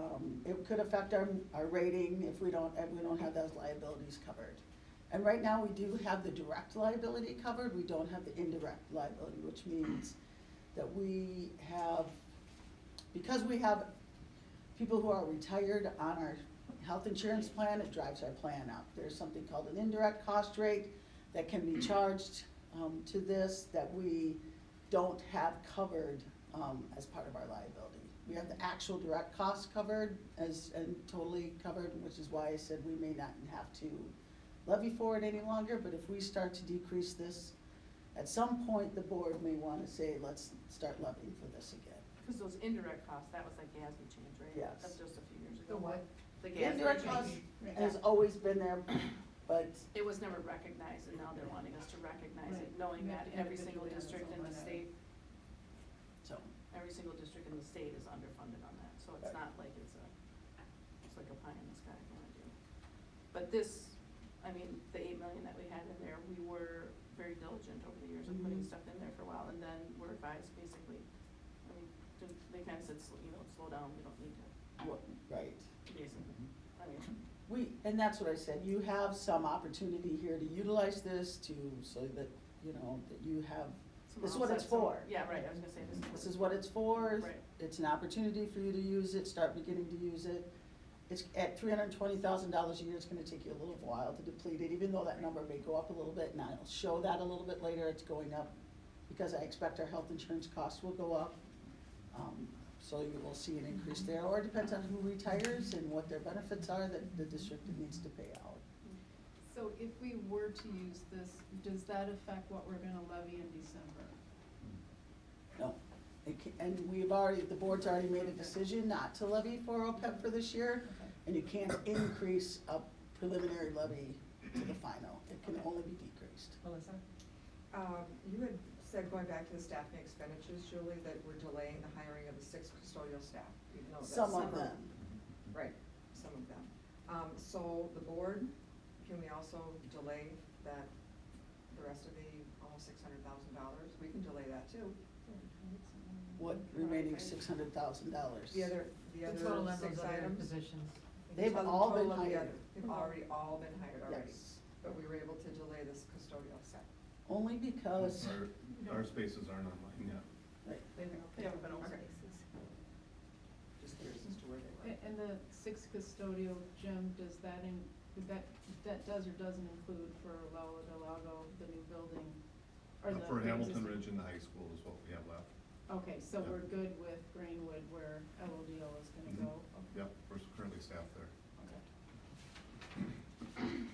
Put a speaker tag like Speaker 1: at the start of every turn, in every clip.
Speaker 1: Um, it could affect our, our rating if we don't, if we don't have those liabilities covered. And right now, we do have the direct liability covered, we don't have the indirect liability, which means that we have, because we have people who are retired on our health insurance plan, it drives our plan up. There's something called an indirect cost rate that can be charged, um, to this that we don't have covered, um, as part of our liability. We have the actual direct costs covered as, and totally covered, which is why I said we may not have to levy for it any longer, but if we start to decrease this, at some point, the board may wanna say, let's start levying for this again.
Speaker 2: Because those indirect costs, that was like GASB change, right?
Speaker 1: Yes.
Speaker 2: That's just a few years ago.
Speaker 3: The what?
Speaker 2: The
Speaker 1: Indirect
Speaker 2: GASB
Speaker 1: costs
Speaker 2: change.
Speaker 1: has always been there, but
Speaker 2: It was never recognized, and now they're wanting us to recognize it,
Speaker 3: Right.
Speaker 2: knowing
Speaker 3: You
Speaker 2: that
Speaker 3: have to
Speaker 2: every single
Speaker 3: individually have its
Speaker 2: district
Speaker 3: own
Speaker 2: in the
Speaker 3: line item.
Speaker 2: state,
Speaker 1: So,
Speaker 2: every single district in the state is underfunded on that, so it's
Speaker 1: Right.
Speaker 2: not like it's a, it's like a pie in the sky kind of deal. But this, I mean, the eight million that we had in there, we were very diligent over the years of putting
Speaker 3: Mm-hmm.
Speaker 1: Mhm.
Speaker 2: stuff in there for a while, and then we're advised basically, I mean, didn't- they kind of said, "Slow- you know, slow down, we don't need to,
Speaker 1: what, right.
Speaker 2: basically, I mean.
Speaker 1: We, and that's what I said, you have some opportunity here to utilize this to, so that, you know, that you have,
Speaker 2: some
Speaker 1: this is what it's
Speaker 2: offsets, some-
Speaker 1: for.
Speaker 2: Yeah, right, I was gonna say this.
Speaker 1: This is what it's for.
Speaker 2: Right.
Speaker 1: It's an opportunity for you to use it, start beginning to use it. It's, at three hundred and twenty thousand dollars a year, it's gonna take you a little while to deplete it, even though that number may go up a little bit, and I'll show that a little bit later, it's going up because I expect our health insurance costs will go up. Um, So you will see an increase there, or it depends on who retires and what their benefits are that the district needs to pay out.
Speaker 3: So if we were to use this, does that affect what we're gonna levy in December?
Speaker 1: No, It ca- and we've already, the board's already made a decision not to levy for OPEB for this year,
Speaker 3: Okay.
Speaker 1: and you can't increase a preliminary levy to the final, it can only be decreased.
Speaker 4: Melissa?
Speaker 5: Um, You had said, going back to the staffing expenditures, Julie, that we're delaying the hiring of the six custodial staff, even though that's
Speaker 1: Some
Speaker 5: summer.
Speaker 1: of them,
Speaker 5: Right, some of them. Um, So the board, can we also delay that, the rest of the almost six hundred thousand dollars? We can delay that too.
Speaker 1: what remaining six hundred thousand dollars.
Speaker 5: The other, the other six items.
Speaker 4: positions.
Speaker 5: the
Speaker 1: They've
Speaker 5: total-
Speaker 1: all been
Speaker 5: total of the
Speaker 1: hired.
Speaker 5: other- They've already all been hired already,
Speaker 1: Yes,
Speaker 5: but we were able to delay this custodial staff.
Speaker 1: only because,
Speaker 6: Our, our spaces aren't online yet.
Speaker 1: right,
Speaker 2: They haven't been open.
Speaker 5: Okay. Just curious as to where they were.
Speaker 3: A- And the six custodial gem, does that in, would that, that does or doesn't include for Lola Del Lago, the new building? or
Speaker 6: Uh,
Speaker 3: the-
Speaker 6: For
Speaker 3: the
Speaker 6: Hamilton
Speaker 3: existing-
Speaker 6: Ridge and the high school is what we have left.
Speaker 3: Okay, so
Speaker 6: Yeah.
Speaker 3: we're good with Greenwood where LODO is gonna
Speaker 6: Mhm.
Speaker 3: go?
Speaker 6: Yep, we're currently staffed there.
Speaker 3: Okay.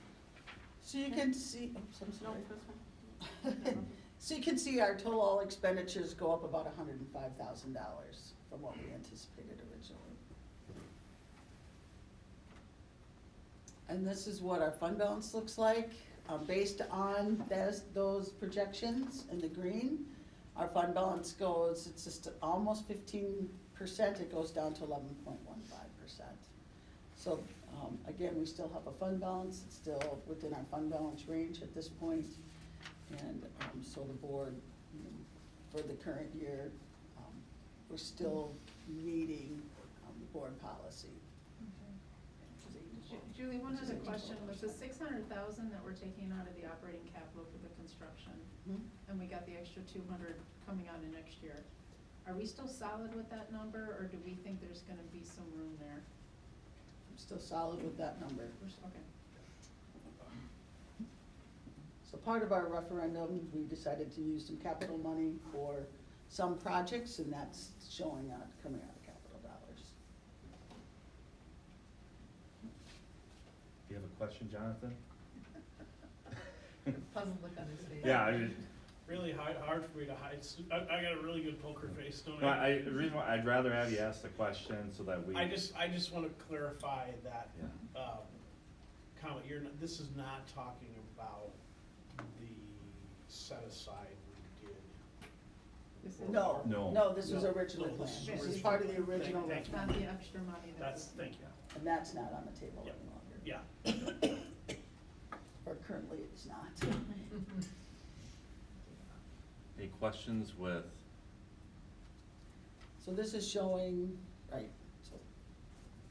Speaker 1: so you can see, oops, I'm
Speaker 2: No,
Speaker 1: sorry.
Speaker 2: this one?
Speaker 1: So you can see our total expenditures go up about hundred and five thousand dollars from what we anticipated originally. And this is what our fund balance looks like, um, based on those, those projections in the green. Our fund balance goes, it's just almost fifteen percent, it goes down to eleven point one five percent. So, um, again, we still have a fund balance, it's still within our fund balance range at this point. And, um, so the board, you know, for the current year, um, we're still meeting, um, the board policy.
Speaker 2: Which is eight to
Speaker 3: Ju-
Speaker 2: twelve.
Speaker 3: Julie, one
Speaker 1: Which is
Speaker 3: other
Speaker 1: eight to
Speaker 3: question,
Speaker 1: twelve
Speaker 3: with the
Speaker 1: percent.
Speaker 3: six hundred thousand that we're taking out of the operating capital for the construction,
Speaker 1: Hmm?
Speaker 3: and we got the extra two hundred coming out of next year, are we still solid with that number, or do we think there's gonna be some room there?
Speaker 1: I'm still solid with that number.
Speaker 3: We're s- Okay.
Speaker 1: So part of our referendum, we decided to use some capital money for some projects, and that's showing out, coming out of capital dollars.
Speaker 7: Do you have a question, Jonathan?
Speaker 4: Puzzled look on his face.
Speaker 7: Yeah, I just,
Speaker 8: really hard, hard for me to hide. s- I, I got a really good poker face, don't
Speaker 7: no,
Speaker 8: I?
Speaker 7: I, the reason why, I'd rather have you ask the question so that we.
Speaker 8: I just, I just want to clarify that
Speaker 7: Yeah.
Speaker 8: um, comment. You're, not- this is not talking about the set aside we did.
Speaker 3: This is
Speaker 1: No.
Speaker 7: No.
Speaker 1: No, this was
Speaker 8: No.
Speaker 1: original
Speaker 8: No,
Speaker 1: plan.
Speaker 8: this is
Speaker 1: This is
Speaker 8: original.
Speaker 1: part of the original
Speaker 8: Thank- thank you.
Speaker 3: Not
Speaker 1: referendum,
Speaker 3: the extra money that's.
Speaker 8: That's, thank you.
Speaker 1: and that's not on the table any
Speaker 8: Yeah.
Speaker 1: longer.
Speaker 8: Yeah.
Speaker 1: Or currently it's not.
Speaker 7: Any questions with
Speaker 1: So this is showing, right,